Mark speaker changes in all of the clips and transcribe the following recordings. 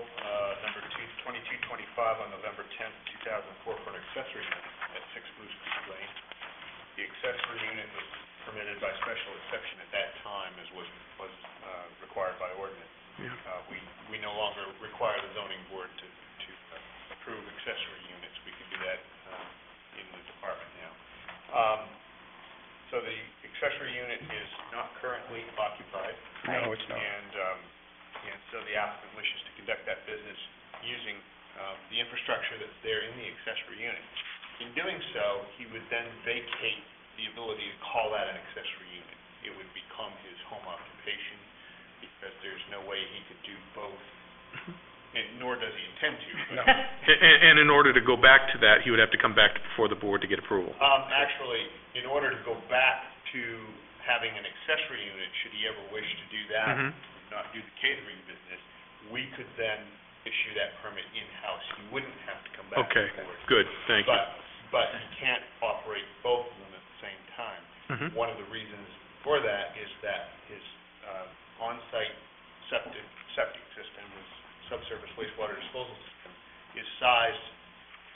Speaker 1: uh, filed on November 10th, 2004 for an accessory unit at 6 Blue Street Lane. The accessory unit was permitted by special exception at that time, as was, was uh, required by ordinance. Uh, We, we no longer require the zoning board to, to uh, approve accessory units. We can do that uh, in the department now. Um, So the accessory unit is not currently occupied.
Speaker 2: No, it's not.
Speaker 1: And, um, and so the applicant wishes to conduct that business using um, the infrastructure that's there in the accessory unit. In doing so, he would then vacate the ability to call that an accessory unit. It would become his home occupation because there's no way he could do both, and nor does he intend to. but-
Speaker 2: No.
Speaker 3: And, and in order to go back to that, he would have to come back before the board to get approval.
Speaker 4: Uh,
Speaker 1: Um, actually, in order to go back to having an accessory unit, should he ever wish to do that,
Speaker 3: Mhm.
Speaker 1: not do the catering business, we could then issue that permit in-house. He wouldn't have to come back to
Speaker 3: Okay,
Speaker 1: the board.
Speaker 3: good, thank you.
Speaker 1: But, but he can't operate both of them at the same time.
Speaker 3: Mhm.
Speaker 1: One of the reasons for that is that his uh, on-site septic, septic system, his subsurface wastewater disposal system, is sized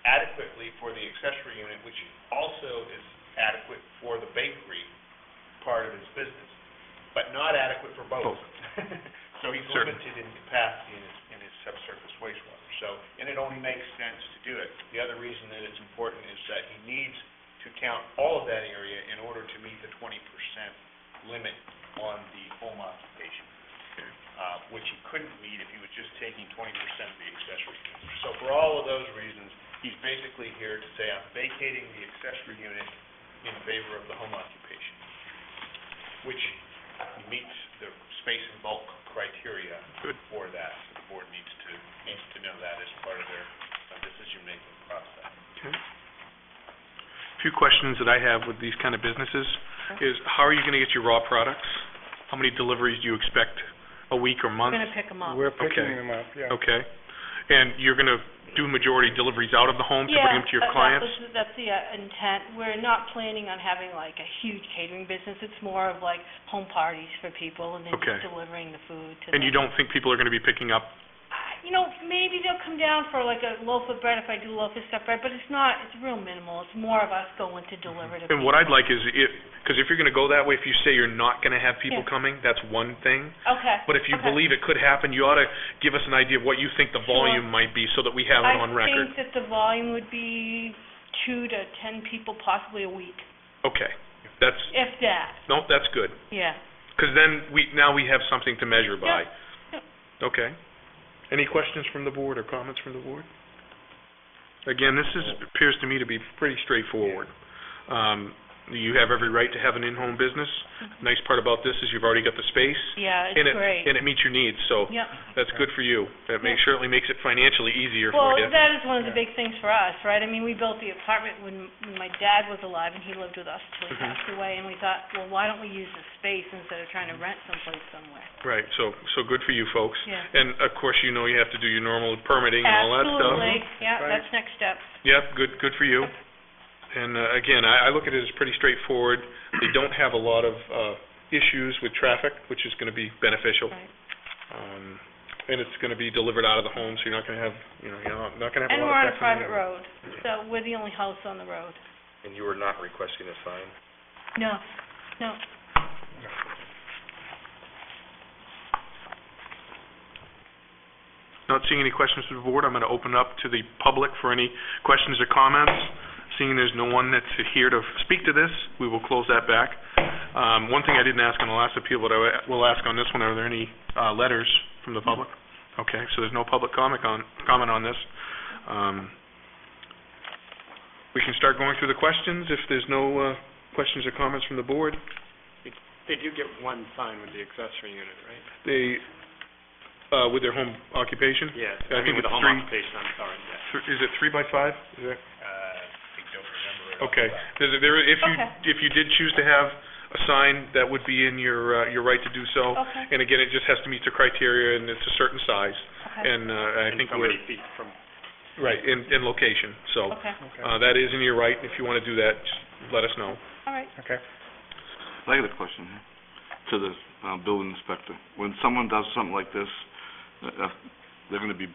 Speaker 1: adequately for the accessory unit, which also is adequate for the bakery part of his business, but not adequate for both.
Speaker 3: Both.
Speaker 1: So he's
Speaker 3: Sure.
Speaker 1: limited in capacity in his, in his subsurface wastewater, so, and it only makes sense to do it. The other reason that it's important is that he needs to count all of that area in order to meet the twenty percent limit on the home occupation, uh, which he couldn't meet if he was just taking twenty percent of the accessory unit. So for all of those reasons, he's basically here to say, I'm vacating the accessory unit in favor of the home occupation, which meets the space and bulk criteria
Speaker 3: Good.
Speaker 1: for that. So The board needs to, needs to know that as part of their uh, decision-making process.
Speaker 3: Few questions that I have with these kind of businesses is, how are you gonna get your raw products? How many deliveries do you expect a week or month?
Speaker 4: We're gonna pick them up.
Speaker 2: We're picking
Speaker 3: Okay.
Speaker 2: them up, yeah.
Speaker 3: Okay, and you're gonna do majority deliveries out of the home to bring them to your clients?
Speaker 4: Yeah, that- that was- that's the uh, intent. We're not planning on having like a huge catering business. It's more of like home parties for people and then
Speaker 3: Okay.
Speaker 4: just delivering the food to them.
Speaker 3: And you don't think people are gonna be picking up?
Speaker 4: I- You know, maybe they'll come down for like a loaf of bread if I do loaf of stuffed bread, but it's not, it's real minimal. It's more of us going to deliver to people.
Speaker 3: And what I'd like is if, because if you're gonna go that way, if you say you're not gonna have people
Speaker 4: Yeah.
Speaker 3: coming, that's one thing.
Speaker 4: Okay.
Speaker 3: But if you
Speaker 4: okay.
Speaker 3: believe it could happen, you ought to give us an idea of what you think the volume might be so that we have it on
Speaker 4: I
Speaker 3: record.
Speaker 4: think that the volume would be two to 10 people possibly a week,
Speaker 3: Okay, that's,
Speaker 4: if that,
Speaker 3: no, that's good,
Speaker 4: yeah.
Speaker 3: because then we, now we have something to measure by.
Speaker 4: Yeah,
Speaker 3: Okay. Any questions from the board or comments from the board? Again, this is, appears to me to be pretty straightforward. Um, you have every right to have an in-home business. Nice part about this is you've already got the space.
Speaker 4: Yeah, it's
Speaker 3: and it-
Speaker 4: great.
Speaker 3: And it meets your needs, so
Speaker 4: Yep.
Speaker 3: that's good for you. That makes,
Speaker 4: Yeah.
Speaker 3: certainly makes it financially easier
Speaker 4: Well,
Speaker 3: for you.
Speaker 4: that is one of the
Speaker 2: Yeah.
Speaker 4: big things for us, right? I mean, we built the apartment when when my dad was alive, and he lived with us till he
Speaker 3: Mhm.
Speaker 4: passed away, and we thought, well, why don't we use the space instead of trying to rent someplace somewhere?
Speaker 3: Right, so, so good for you folks.
Speaker 4: Yeah.
Speaker 3: And of course, you know you have to do your normal permitting and all that stuff.
Speaker 4: Absolutely, yeah,
Speaker 2: Right.
Speaker 4: that's next step.
Speaker 3: Yep, good, good for you. And uh, again, I, I look at it as pretty straightforward. They don't have a lot of uh, issues with traffic, which is going to be beneficial.
Speaker 4: Right.
Speaker 3: Um, And it's going to be delivered out of the home, so you're not going to have, you know, you're not going to have
Speaker 4: And
Speaker 3: a
Speaker 4: we're
Speaker 3: lot
Speaker 4: on
Speaker 3: of
Speaker 4: a
Speaker 3: traffic.
Speaker 4: private road, so we're the only house on the road.
Speaker 5: And you were not requesting a sign?
Speaker 4: No, no.
Speaker 3: Not seeing any questions from the board, I'm going to open up to the public for any questions or comments. Seeing there's no one that's here to speak to this, we will close that back. Um, One thing I didn't ask on the last appeal, but I will ask on this one, are there any uh, letters from the public? Okay, so there's no public comic on, comment on this. Um, We can start going through the questions if there's no uh, questions or comments from the board.
Speaker 6: They do get one sign with the accessory unit, right?
Speaker 3: They, uh, with their home occupation?
Speaker 6: Yes,
Speaker 3: I
Speaker 6: I
Speaker 3: think
Speaker 6: mean, with
Speaker 3: it's
Speaker 6: the home
Speaker 3: three-
Speaker 6: occupation, I'm sorry, yeah.
Speaker 3: Th- Is it three by five? Is that-
Speaker 1: Uh, I don't remember it off the
Speaker 3: Okay,
Speaker 1: top.
Speaker 3: There's a- there, if you,
Speaker 4: Okay.
Speaker 3: if you did choose to have a sign, that would be in your, uh, your right to do so.
Speaker 4: Okay.
Speaker 3: And again, it just has to meet the criteria, and it's a certain size,
Speaker 4: Okay.
Speaker 3: and, uh, I
Speaker 6: And
Speaker 3: think
Speaker 6: so
Speaker 3: we're...
Speaker 6: many feet from,
Speaker 3: Right, and, and location, so,
Speaker 4: Okay,
Speaker 3: uh, that is in your right, and if you wanna do that, just let us know.
Speaker 4: all right.
Speaker 2: Okay.
Speaker 7: I got a question here to the uh, building inspector. When someone does something like this, uh, uh, they're going to be